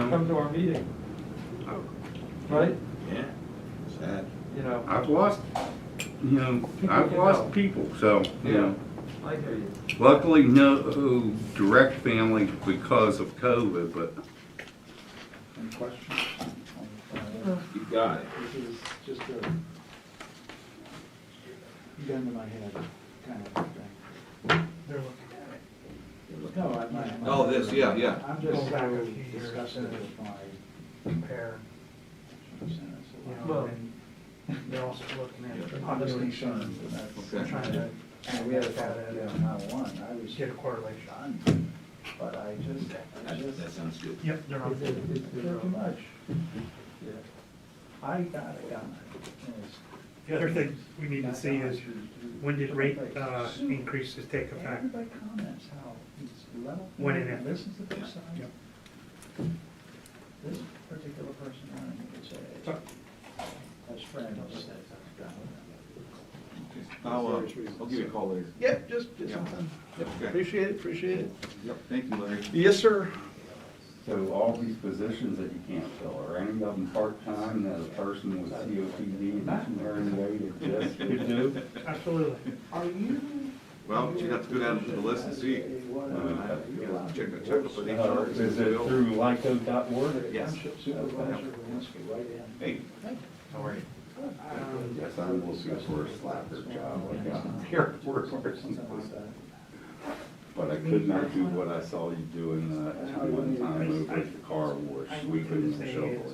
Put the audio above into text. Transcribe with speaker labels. Speaker 1: come to our meeting,
Speaker 2: Oh,
Speaker 1: right?
Speaker 2: Yeah,
Speaker 3: Sad.
Speaker 1: You know,
Speaker 2: I've lost, you know, I've
Speaker 1: People you know.
Speaker 2: lost people, so, you
Speaker 1: Yeah.
Speaker 2: know.
Speaker 1: I hear you.
Speaker 2: Luckily, no direct family because of COVID, but
Speaker 3: Any questions?
Speaker 2: you got it.
Speaker 3: This is just a gun to my head kind of thing.
Speaker 4: They're looking at it.
Speaker 3: No, I'm not.
Speaker 5: Oh, this, yeah, yeah.
Speaker 3: I'm just
Speaker 4: Go back a few years
Speaker 3: disgusted
Speaker 4: and-
Speaker 3: with my
Speaker 4: Compare,
Speaker 3: insurance.
Speaker 4: you know,
Speaker 1: Well-
Speaker 4: and they're also looking at.
Speaker 3: Honest insurance, and
Speaker 5: Okay.
Speaker 3: that's.
Speaker 4: Trying to
Speaker 3: And we had a thought
Speaker 4: that
Speaker 3: yeah,
Speaker 4: and
Speaker 3: on that one, I was
Speaker 4: get a correlation.
Speaker 3: done, but I just, I
Speaker 5: That, that
Speaker 3: just,
Speaker 5: sounds good.
Speaker 4: Yep, they're on.
Speaker 1: It's, it's, it's,
Speaker 3: too much. I got it, got it.
Speaker 4: The other thing we need to see is when did rate uh, increases take effect?
Speaker 3: Everybody comments how it's level.
Speaker 4: When and if.
Speaker 3: Listens to both sides.
Speaker 4: Yep.
Speaker 3: This particular person, I don't think it's a, that's friend.
Speaker 5: I'll, uh, I'll give you a call later.
Speaker 3: Yep, just, just
Speaker 5: Yeah.
Speaker 3: something.
Speaker 5: Okay.
Speaker 3: Appreciate it, appreciate it.
Speaker 5: Yep, thank you, Larry.
Speaker 3: Yes, sir.
Speaker 6: So all these positions that you can't fill, are any of them part-time that a person with COPD and wearing weight just could do?
Speaker 4: Absolutely.
Speaker 3: Are you?
Speaker 5: Well, you have to go down to the list and see. Uh, Check, check up with
Speaker 6: Uh,
Speaker 5: HR.
Speaker 6: Is it through lyco.org?
Speaker 5: Yes.
Speaker 3: Township Supervisor Walensky, right in.
Speaker 5: Hey, how are you?
Speaker 4: Um,
Speaker 6: Yes, I'm looking for a slacker job, like a here work or
Speaker 3: Something like
Speaker 6: something.
Speaker 3: that.
Speaker 6: But I could not do what I saw you doing, uh, one time over at the car wash, sweeping and shoveling.